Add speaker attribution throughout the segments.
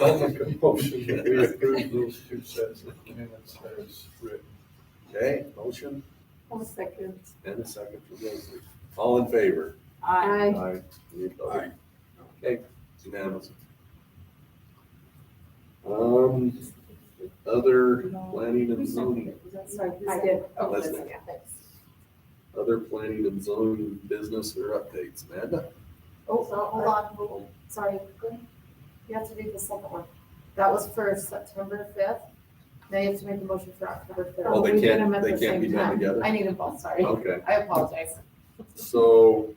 Speaker 1: I'll make a motion that we approve those two sets of minutes as written.
Speaker 2: Okay, motion
Speaker 3: One second.
Speaker 2: and a second for Leslie. All in favor?
Speaker 3: Aye.
Speaker 2: Aye. Any opposed? Okay, it's unanimous. Um, other planning and zoning,
Speaker 3: I did. Oh,
Speaker 2: Leslie.
Speaker 3: Leslie, yeah, thanks.
Speaker 2: other planning and zoning business or updates, Amanda?
Speaker 3: Oh, so, hold on, hold on. sorry, go ahead. You have to read the second one. That was for September fifth. Now you have to make a motion for October third.
Speaker 2: Oh, they
Speaker 3: We did them
Speaker 2: can't,
Speaker 3: at
Speaker 2: they
Speaker 3: the
Speaker 2: can't be
Speaker 3: same
Speaker 2: done
Speaker 3: time.
Speaker 2: together? Oh.
Speaker 3: I need them both, sorry.
Speaker 2: Okay,
Speaker 3: I apologize.
Speaker 2: so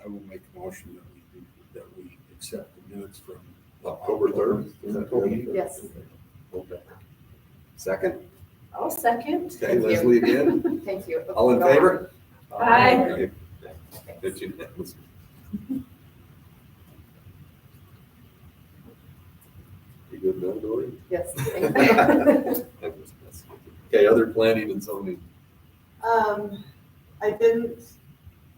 Speaker 1: I will make a motion that we, do- that we accept the minutes from.
Speaker 2: October third? Is that good?
Speaker 3: Yes.
Speaker 2: Okay. Second,
Speaker 3: Oh, second.
Speaker 2: okay, Leslie again?
Speaker 3: Thank you.
Speaker 2: All in favor?
Speaker 3: Aye.
Speaker 2: It's unanimous. You good now, Dory?
Speaker 3: Yes, thank you.
Speaker 2: That was messy. Okay, other planning and zoning.
Speaker 4: Um, I didn't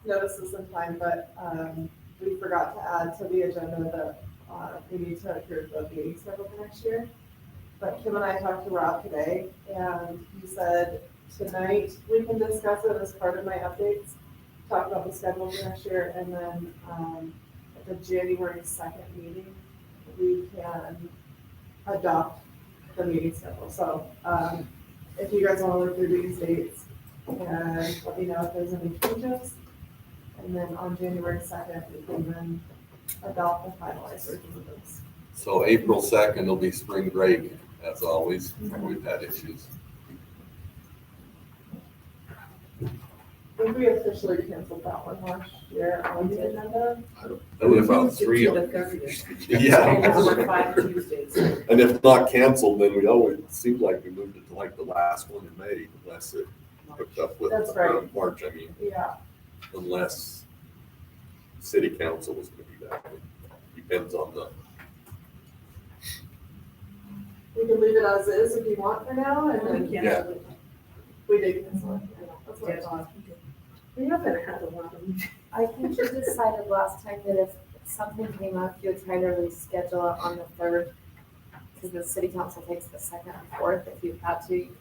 Speaker 4: notice this in time, but, um, we forgot to add to the agenda that, uh, we need to approve the meeting schedule for next year. But Kim and I talked to Rob today, and he said, tonight, we can discuss it as part of my updates, talk about the schedule for next year, and then, um, at the January second meeting, we can adopt the meeting schedule. So, um, if you guys wanna look through these dates, and let me Uh, know if there's any changes. And then on January second, we can then adopt the finalized version of this.
Speaker 2: So April second will be spring break, as always, we've had issues.
Speaker 4: I think we officially canceled that one last year on the agenda.
Speaker 2: That was about three of
Speaker 5: The
Speaker 2: them.
Speaker 5: thirtieth.
Speaker 2: Yeah.
Speaker 5: And those were five Tuesdays.
Speaker 2: And if not canceled, then we always, it seemed like we moved it to like the last one in May, unless it hooked up with
Speaker 4: That's right.
Speaker 2: um, March, I mean.
Speaker 4: Yeah,
Speaker 2: unless city council is gonna be that way. Depends on the,
Speaker 4: we can leave it as is if you want for now, and then
Speaker 2: Yeah.
Speaker 4: we did cancel it. I know, That's what I thought.
Speaker 5: We haven't had a lot of.
Speaker 3: I think you decided last time that if something came up, you would try to reschedule it on the third. Because the city council takes the second and fourth. If you had to, you could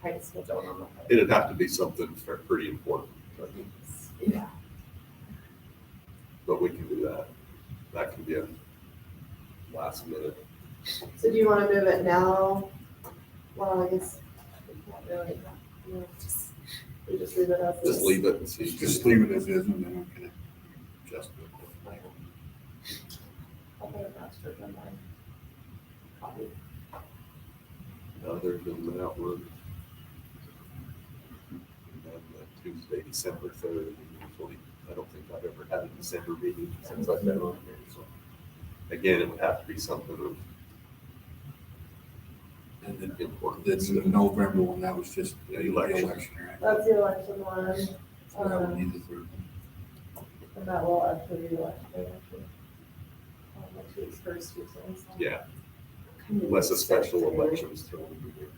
Speaker 3: try to schedule it on the third.
Speaker 2: it'd have to be something fair- pretty important, I think,
Speaker 3: Yeah.
Speaker 2: but we can do that. That can be a last minute.
Speaker 4: So do you wanna move it now? Well, I guess we can't really, you know, just, we just leave it as is.
Speaker 2: Just leave it and see.
Speaker 1: Just leave it as is and then we can adjust it.
Speaker 4: Okay, that's true, never mind. Copy.
Speaker 2: Other than that, we're. we have the Tuesday, December third, usually, I don't think I've ever had a December meeting since I've been on here, so. Again, it would have to be something of
Speaker 1: And then,
Speaker 2: importance.
Speaker 1: then the November one, that was just the
Speaker 2: Election.
Speaker 1: election, right?
Speaker 4: That's the election one, Um,
Speaker 1: So that would be the third.
Speaker 4: and that will actually be election day, actually. Um, Next week's first Tuesday. so.
Speaker 2: Yeah, Unless a special election is thrown. in there.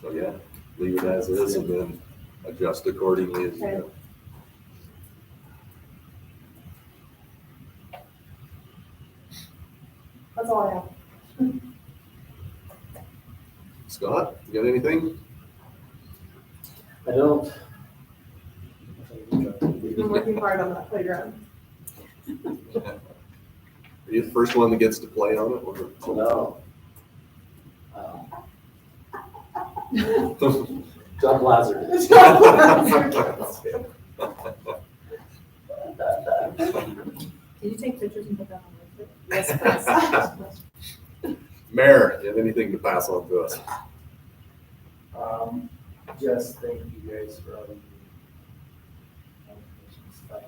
Speaker 2: So, yeah, leave it as is and then adjust accordingly as you go.
Speaker 4: That's all I have.
Speaker 2: Scott, you got anything?
Speaker 6: I don't.
Speaker 4: We've been working hard on that playground.
Speaker 2: Are you the first one that gets to play on it or?
Speaker 6: No. Um, John Lazard.
Speaker 5: Can you take pictures and put that on the?
Speaker 3: Yes, please.
Speaker 2: Mayor, you have anything to pass on to us?
Speaker 6: Um, just thank you guys for all the information stuff.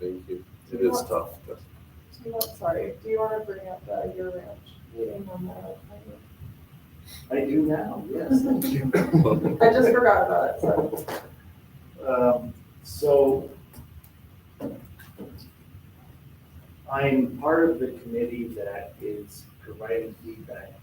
Speaker 2: Thank you. It is tough. but-
Speaker 4: Do you want, sorry, do you want to bring up the year ranch meeting on that?
Speaker 6: I do now, yes, thank you.
Speaker 4: I just forgot about it, so.
Speaker 6: Um, so I'm part of the committee that is providing feedback